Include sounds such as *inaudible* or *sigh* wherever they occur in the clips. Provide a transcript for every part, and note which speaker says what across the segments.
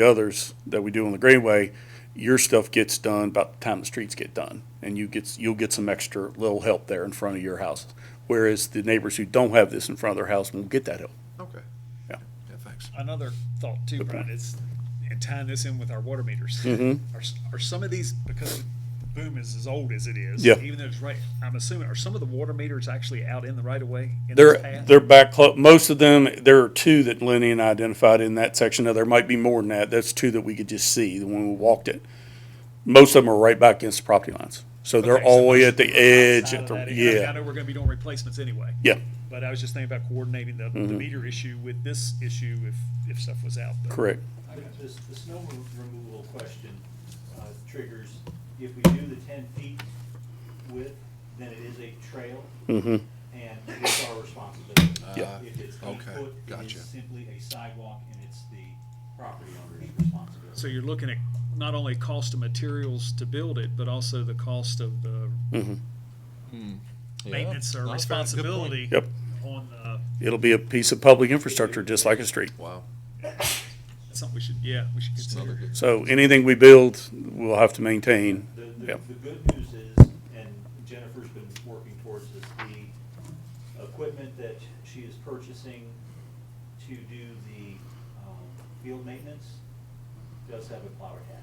Speaker 1: the others that we do on the Greenway, your stuff gets done about the time the streets get done, and you get, you'll get some extra little help there in front of your house. Whereas the neighbors who don't have this in front of their house won't get that help.
Speaker 2: Okay.
Speaker 1: Yeah.
Speaker 2: Yeah, thanks.
Speaker 3: another thought too, Brian, is, and tying this in with our water meters.
Speaker 1: Mm-hmm.
Speaker 3: Are, s- are some of these, because the boom is as old as it is.
Speaker 1: Yeah.
Speaker 3: Even though it's right, I'm assuming, are some of the water meters actually out in the right of way? in this
Speaker 1: They're,
Speaker 3: path?
Speaker 1: they're back, clo- most of them, there are two that Lenny and I identified in that section. Now, there might be more than that. That's two that we could just see when we walked it. Most of them are right back against the property lines. So they're
Speaker 3: Okay, so
Speaker 1: all the way at the
Speaker 3: most of them are
Speaker 1: edge, at the,
Speaker 3: outside of that area. I mean, I
Speaker 1: yeah,
Speaker 3: know we're gonna be doing replacements anyway.
Speaker 1: yeah, Mm-hmm.
Speaker 3: But I was just thinking about coordinating the, the meter issue with this issue if, if stuff was out. but-
Speaker 1: correct.
Speaker 4: I mean, This, the snow remo- removal question uh, triggers, if we do the ten feet width, then it is a trail. And it's our responsibility.
Speaker 1: Yeah.
Speaker 4: If it's eight
Speaker 2: Uh, okay,
Speaker 4: foot, it
Speaker 2: gotcha.
Speaker 4: is simply a sidewalk and it's the property owner's responsibility.
Speaker 3: So you're looking at not only cost of materials to build it, but also the cost of the maintenance or
Speaker 2: No, that's fair. Good point.
Speaker 3: responsibility.
Speaker 1: Yep.
Speaker 3: On the
Speaker 1: It'll be a piece of public infrastructure, just like a street.
Speaker 2: Wow.
Speaker 3: That's Something we should, yeah, we should
Speaker 2: It's another
Speaker 3: consider.
Speaker 2: good.
Speaker 1: So anything we build, we'll have to maintain.
Speaker 4: The, the,
Speaker 1: Yep.
Speaker 4: the good news is, and Jennifer's been working towards this, the equipment that she is purchasing to do the, um, field maintenance does have a plow
Speaker 2: Yeah.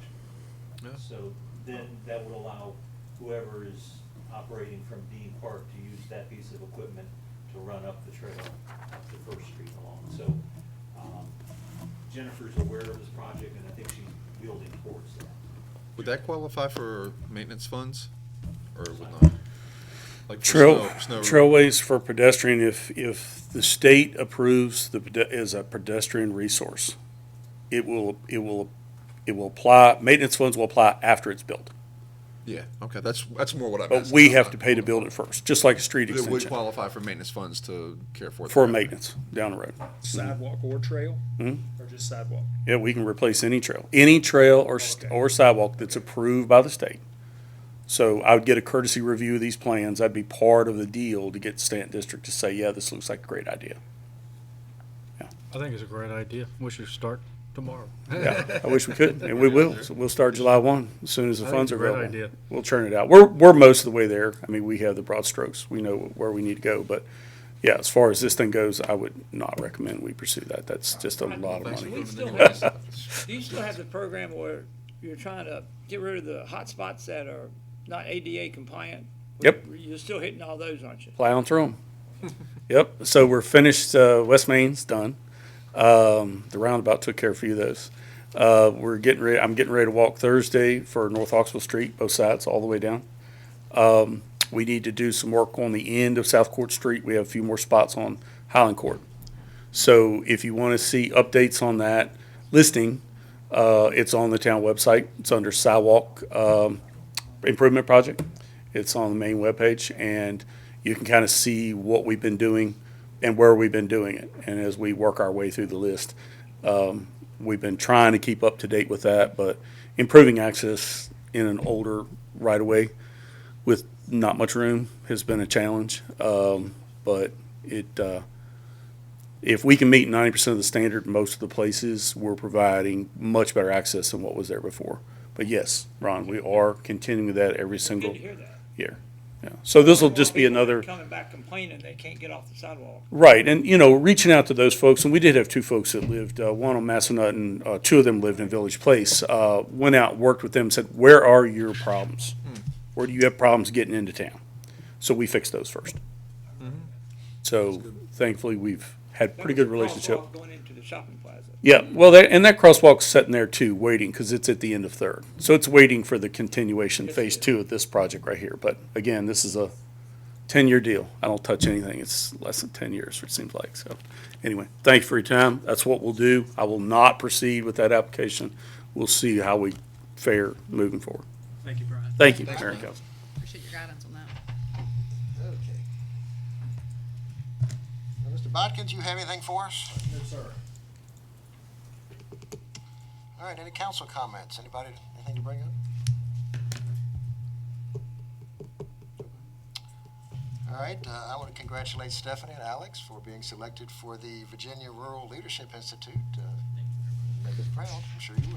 Speaker 4: attachment. So then that would allow whoever is operating from Dean Park to use that piece of equipment to run up the trail, up the First Street along. So, um, Jennifer's aware of this project and I think she's building towards that.
Speaker 2: Would that qualify for maintenance funds or would not? Like for
Speaker 1: Trail,
Speaker 2: snow- snow-
Speaker 1: trailways for pedestrian, if, if the state approves the, pede- is a pedestrian resource, it will, it will, it will apply, maintenance funds will apply after it's built.
Speaker 2: Yeah, okay, that's, that's more what I'm
Speaker 1: But
Speaker 2: asking.
Speaker 1: we have to pay to build it first, just like a street
Speaker 2: It would
Speaker 1: extension
Speaker 2: qualify for maintenance funds to care for. the
Speaker 1: for
Speaker 2: property.
Speaker 1: maintenance down the road.
Speaker 3: Sidewalk or trail? Or just sidewalk?
Speaker 1: Yeah, we can replace any trail, any trail or, s-
Speaker 3: Okay.
Speaker 1: or sidewalk that's approved by the state. So I would get a courtesy review of these plans. I'd be part of the deal to get Stanton District to say, yeah, this looks like a great idea.
Speaker 5: I think it's a great idea. We should start tomorrow.
Speaker 1: Yeah, I wish we could, and we will. So we'll start July one, as soon as the
Speaker 5: I think
Speaker 1: funds
Speaker 5: it's
Speaker 1: are
Speaker 5: a great
Speaker 1: available.
Speaker 5: idea.
Speaker 1: We'll churn it out. We're, we're most of the way there. I mean, we have the broad strokes. We know where we need to go, but yeah, as far as this thing goes, I would not recommend we pursue that. That's just a lot of
Speaker 2: Thanks for
Speaker 1: money.
Speaker 6: We still
Speaker 2: coming in.
Speaker 6: have- Do you still have the program where you're trying to get rid of the hot spots that are not ADA compliant?
Speaker 1: Yep.
Speaker 6: You're still hitting all those, aren't you?
Speaker 1: Plowing through them. *laughs* Yep, so we're finished, uh, West Main's done. Um, the roundabout took care of a few of those. Uh, we're getting ready, I'm getting ready to walk Thursday for North Oxford Street, both sides, all the way down. Um, We need to do some work on the end of South Court Street. We have a few more spots on Highland Court. So if you want to see updates on that listing, uh, it's on the town website. It's under sidewalk, um, improvement project. It's on the main webpage and you can kind of see what we've been doing and where we've been doing it. And as we work our way through the list, um, we've been trying to keep up to date with that, but improving access in an older right of way with not much room has been a challenge. Um, but it, uh, if we can meet ninety percent of the standard, most of the places, we're providing much better access than what was there before. But yes, Ron, we are continuing that every
Speaker 6: Good
Speaker 1: single
Speaker 6: to hear that.
Speaker 1: year. Yeah. So this will just be
Speaker 6: People
Speaker 1: another.
Speaker 6: Coming back complaining they can't get off the sidewalk.
Speaker 1: Right, and you know, reaching out to those folks, and we did have two folks that lived, uh, one on Massanutten, and uh, two of them lived in Village Place. Uh, went out, worked with them, said, "Where are your problems? Where do you have problems getting into town?" So we fixed those first. So thankfully, we've had
Speaker 6: That
Speaker 1: pretty
Speaker 6: was
Speaker 1: good
Speaker 6: a
Speaker 1: relationship.
Speaker 6: crosswalk Going into the shopping plaza.
Speaker 1: Yeah, well, that, and that crosswalk's sitting there too, waiting, because it's at the end of third. So it's waiting for the continuation, phase two of this project right here. But again, this is a ten-year deal. I don't touch anything. It's less than ten years, it seems like. So anyway, thank you for your time. That's what we'll do. I will not proceed with that application. We'll see how we fare moving forward.
Speaker 3: Thank you, Brian.
Speaker 1: Thank you, Mayor and Council.
Speaker 7: Appreciate your guidance on that.
Speaker 8: Okay. Now, Mr. Bodkins, you have anything for us?
Speaker 4: No, sir.
Speaker 8: All right, any council comments? Anybody, anything to bring up? All right, uh, I want to congratulate Stephanie and Alex for being selected for the Virginia Rural Leadership Institute. Uh, They proud, I'm sure you would.